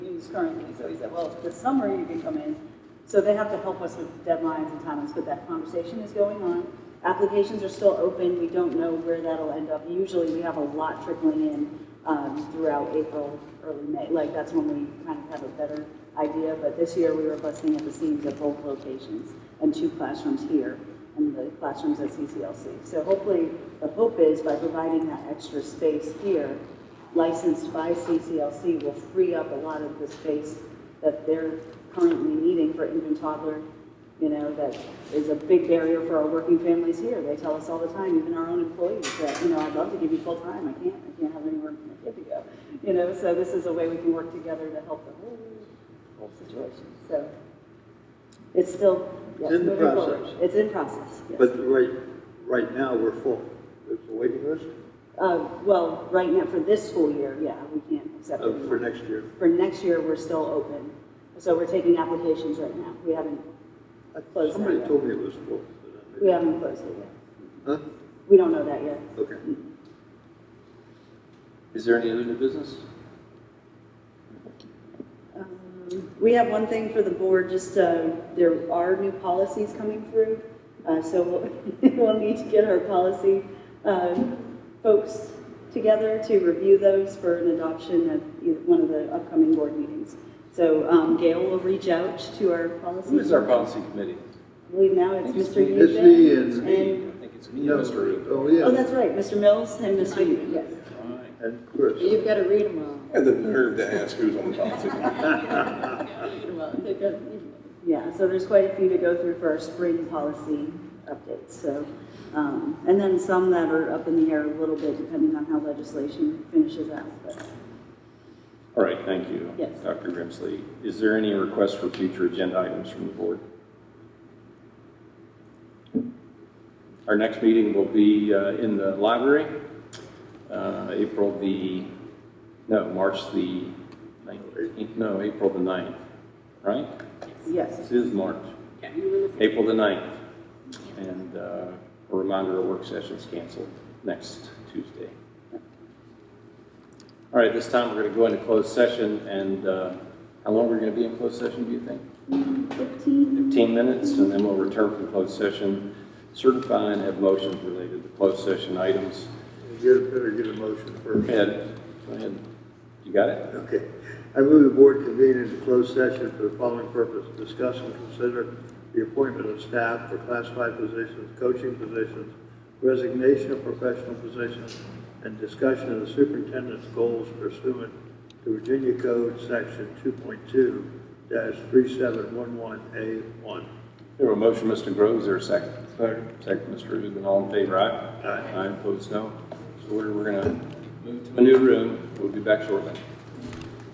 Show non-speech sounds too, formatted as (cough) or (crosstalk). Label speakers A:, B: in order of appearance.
A: reviews currently. So he said, well, this summer you can come in. So they have to help us with deadlines and timelines, but that conversation is going on. Applications are still open. We don't know where that'll end up. Usually we have a lot trickling in um, throughout April, early May. Like that's when we kind of have a better idea. But this year we were busting at the seams at both locations and two classrooms here and the classrooms at CCLC. So hopefully, the hope is by providing that extra space here, licensed by CCLC will free up a lot of the space that they're currently needing for infant toddler, you know, that is a big barrier for our working families here. They tell us all the time, even our own employees, that, you know, I'd love to give you full time, I can't, I can't have anywhere for my kid to go. You know, so this is a way we can work together to help the whole, whole situation, so. It's still, yes,
B: It's in the
A: moving forward.
B: process.
A: It's in process, yes.
B: But right, right now, we're full. It's a waiting list
A: Uh, well, right now, for this school year, yeah, we can't accept
B: uh,
A: it.
B: for next year.
A: For next year, we're still open, so we're taking applications right now, we haven't, Close that,
B: Somebody
A: yeah.
B: told me it was full.
A: we haven't closed it yet.
B: Huh?
A: We don't know that yet.
B: Okay.
C: Is there any other new business?
A: Um, We have one thing for the board, just, uh, there are new policies coming through, uh, so we'll, (laughs) we'll need to get our policy, um, folks together to review those for an adoption at either one of the upcoming board meetings. So, um, Gail will reach out to our policy.
C: Who is our policy committee?
A: I believe now it's
C: It's
A: Mr.
C: me.
B: It's me
A: Eubank
B: and-
C: I think it's me and Mr. Rubin.
B: Oh,
A: Oh, that's
B: yeah.
A: right, Mr. Mills and Mr. Eubank, yes.
C: All right.
B: And Chris.
D: You've got to read them all.
E: And the nerve to ask who's on the policy committee.
D: Read 'em all. They've got to read 'em all.
A: Yeah, so there's quite a few to go through for our spring policy updates, so. um, And then some that are up in the air a little bit depending on how legislation finishes out, but.
C: All right, thank you.
A: Yes.
C: Dr. Grimsley, is there any request for future agenda items from the board? Our next meeting will be uh, in the library, uh, April the, no, March the 19th, no, April the 9th, right?
A: Yes,
C: This is March. April the 9th. And uh, a reminder, our work session's canceled next Tuesday. All right, this time we're going to go into closed session, and uh, how long we are going to be in closed session, do you think?
A: 15,
C: 15 minutes, and then we'll return from closed session, certify and have motions related to closed session items.
B: Get, better get a motion first.
C: Go ahead, go ahead. You got it?
B: Okay. I move the board convene into closed session for the following purpose, discuss and consider the appointment of staff for classified positions, coaching positions, resignation of professional positions, and discussion of the superintendent's goals pursuant to Virginia Code Section two point two three seven one one A one.
C: There were motion, Mr. Groves, or a second? Second. Second, Mr. Rubin, all in favor, aye?
B: Aye.
C: Aye, opposed, no. So we're, we're gonna move to a new room, we'll be back shortly.